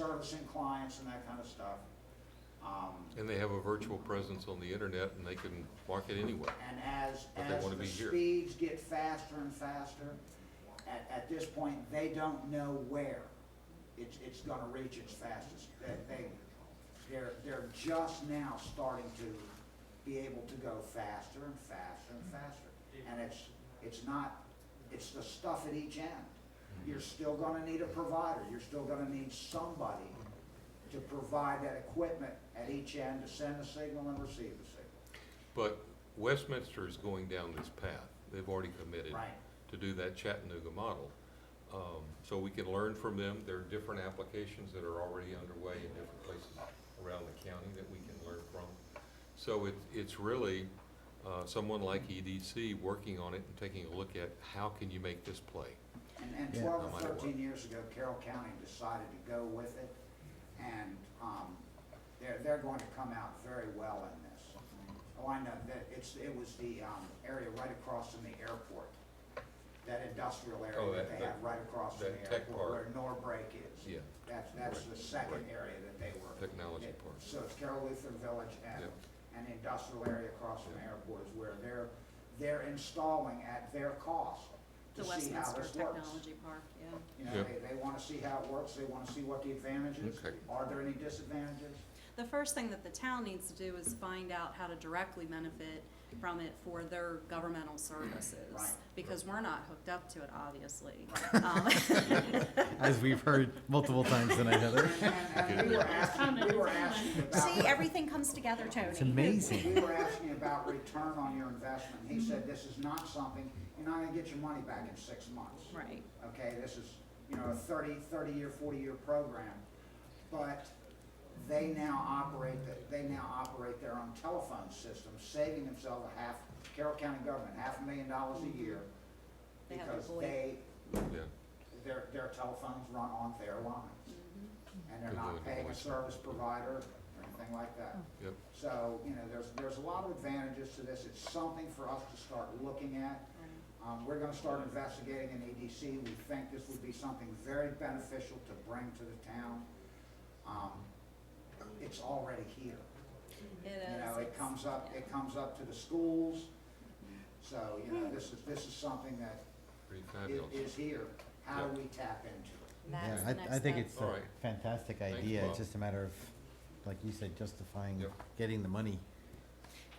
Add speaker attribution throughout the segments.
Speaker 1: servicing clients and that kind of stuff. Um,
Speaker 2: And they have a virtual presence on the internet and they can market anywhere.
Speaker 1: And as,
Speaker 2: But they
Speaker 1: as
Speaker 2: wanna
Speaker 1: the
Speaker 2: be here.
Speaker 1: speeds get faster and faster, at, at this point, they don't know where it's, it's gonna reach its fastest. That they, they're, they're just now starting to be able to go faster and faster and faster. And it's, it's not, it's the stuff at each end. You're still gonna need a provider, you're still gonna need somebody to provide that equipment at each end to send the signal and receive the signal.
Speaker 2: But Westminster is going down this path. They've already committed
Speaker 1: Right.
Speaker 2: to do that Chattanooga model. Um, So we can learn from them. There are different applications that are already underway in different places around the county that we can learn from. So it, it's really uh, someone like EDC working on it and taking a look at how can you make this play?
Speaker 1: And, and
Speaker 3: Yeah.
Speaker 1: twelve
Speaker 2: No
Speaker 1: or
Speaker 2: matter what.
Speaker 1: thirteen years ago, Carroll County decided to go with it, and, um, they're, they're going to come out very well in this. Oh, I know, that, it's, it was the, um, area right across from the airport, that industrial
Speaker 2: Oh,
Speaker 1: area that
Speaker 2: that-
Speaker 1: they have
Speaker 2: that-
Speaker 1: right across from
Speaker 2: that
Speaker 1: the
Speaker 2: tech
Speaker 1: airport, where Norbrake is.
Speaker 2: Yeah.
Speaker 1: That's, that's
Speaker 2: Right,
Speaker 1: the second
Speaker 2: right.
Speaker 1: area that they were.
Speaker 2: Technology
Speaker 1: that-
Speaker 2: park.
Speaker 1: So it's Carroll Lutheran Village and,
Speaker 2: Yep.
Speaker 1: and the industrial area across from the
Speaker 2: Yep.
Speaker 1: airport is where they're, they're installing at their cost to
Speaker 4: The
Speaker 1: see how
Speaker 4: Westminster
Speaker 1: this works.
Speaker 4: Technology Park, yeah.
Speaker 1: You know,
Speaker 2: Yeah.
Speaker 1: they, they want to see how it works, they want to see what the advantages,
Speaker 2: Okay.
Speaker 1: are there any disadvantages?
Speaker 4: The first thing that the town needs to do is find out how to directly benefit from it for their governmental services.
Speaker 1: Right.
Speaker 4: Because we're not hooked up to it, obviously.
Speaker 3: as we've heard multiple times tonight, Heather.
Speaker 1: And, and and we were asking, we were asking about.
Speaker 4: Um, See, everything comes together, Tony.
Speaker 3: It's amazing.
Speaker 1: We were asking about return on your investment, he said, this is not something, you're not gonna get your money back in six months.
Speaker 4: Right.
Speaker 1: Okay, this is, you know, a 30 30-year, 40-year program, but they now operate, the- they now operate their own telephone system, saving themselves a half, Carroll County government, half a million dollars a year.
Speaker 4: They have to
Speaker 1: Because
Speaker 4: void.
Speaker 1: they,
Speaker 2: Yeah.
Speaker 1: their, their telephones run on their lines. And they're
Speaker 2: Good
Speaker 1: not
Speaker 2: Lord,
Speaker 1: paying a
Speaker 2: boys.
Speaker 1: service provider or anything like that.
Speaker 4: Oh.
Speaker 2: Yep.
Speaker 1: So, you know, there's, there's a lot of advantages to this. It's something for us to start looking at. Um, we're gonna start investigating an EDC. We think this would be something very beneficial to bring to the town. Um, It's already here.
Speaker 4: It
Speaker 1: You
Speaker 4: is.
Speaker 1: know, it
Speaker 4: it's-
Speaker 1: comes up,
Speaker 4: yeah.
Speaker 1: it comes up to the schools. So, you know, this is, this is something that
Speaker 2: Pretty
Speaker 1: i-
Speaker 2: fabulous.
Speaker 1: is here. How do
Speaker 2: Yeah.
Speaker 1: we tap into it?
Speaker 4: That's
Speaker 3: Yeah,
Speaker 4: the next
Speaker 3: I, I think
Speaker 4: step.
Speaker 3: it's
Speaker 2: All
Speaker 3: a
Speaker 2: right.
Speaker 3: fantastic
Speaker 2: Thanks,
Speaker 3: idea.
Speaker 2: Bob.
Speaker 3: It's just a matter of, like you said, justifying
Speaker 2: Yep.
Speaker 3: getting the money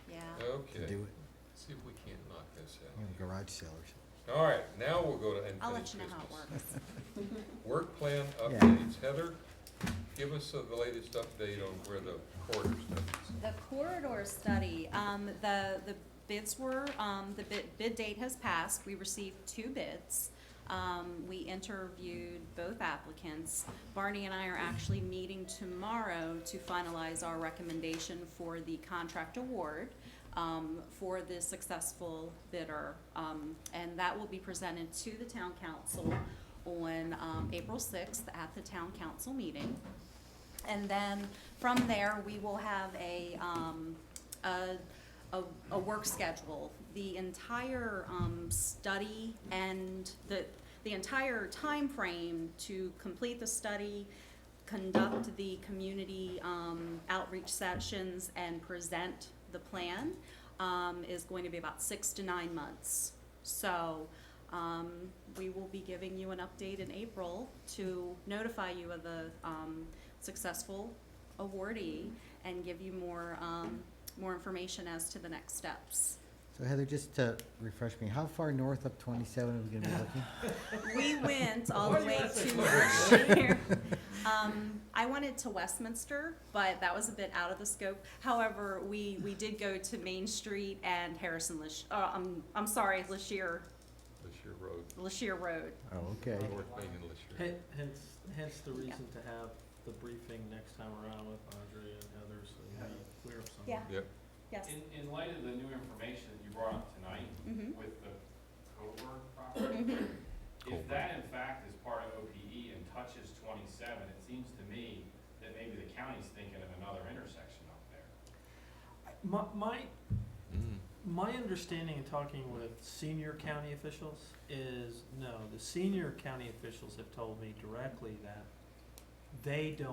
Speaker 4: Yeah.
Speaker 3: to
Speaker 2: Okay,
Speaker 3: do it.
Speaker 2: see if we can't knock this out.
Speaker 3: You know, garage sale or something.
Speaker 2: All right, now we'll go to unfinished business.
Speaker 4: I'll let you know how it works.
Speaker 2: Work plan
Speaker 3: Yeah.
Speaker 2: updates. Heather, give us the latest update on where the corridor stuff is.
Speaker 4: The corridor study, um, the, the bids were, um, the bid, bid date has passed, we received two bids. Um, we interviewed both applicants. Barney and I are actually meeting tomorrow to finalize our recommendation for the contract award, um, for the successful bidder. Um, and that will be presented to the town council on, um, April sixth at the town council meeting. And then from there, we will have a, um, a, a, a work schedule. The entire, um, study and the, the entire timeframe to complete the study, conduct the community, um, outreach sessions and present the plan, um, is going to be about six to nine months. So, um, we will be giving you an update in April to notify you of the, um, successful awardee and give you more, um, more information as to the next steps.
Speaker 3: So Heather, just to refresh me, how far north up 27 are we going to be looking?
Speaker 4: We went all the way to Berkshire. Um, I wanted to Westminster, but that was a bit out of the scope. However, we, we did go to Main Street and Harrison Lish, uh, I'm, I'm sorry, Lashir,
Speaker 2: Lashir Road,
Speaker 4: Lashir Road.
Speaker 3: Oh, okay.
Speaker 2: North Main and Lashir.
Speaker 5: Hen- Hence, hence the reason to have the briefing next time around with Audrey and Heather, so you we clear up some.
Speaker 4: Yeah.
Speaker 2: Yep,
Speaker 4: Yes.
Speaker 6: In, in light of the new information that you brought up tonight
Speaker 4: Mhm.
Speaker 6: with the Coburg property,
Speaker 2: Coburg.
Speaker 6: if that in fact is part of OPE and touches twenty-seven, it seems to me that maybe the county's thinking of another intersection up there.
Speaker 5: My, my,
Speaker 2: Mm.
Speaker 5: my understanding in talking with senior county officials is, no, the senior county officials have told me directly that they don't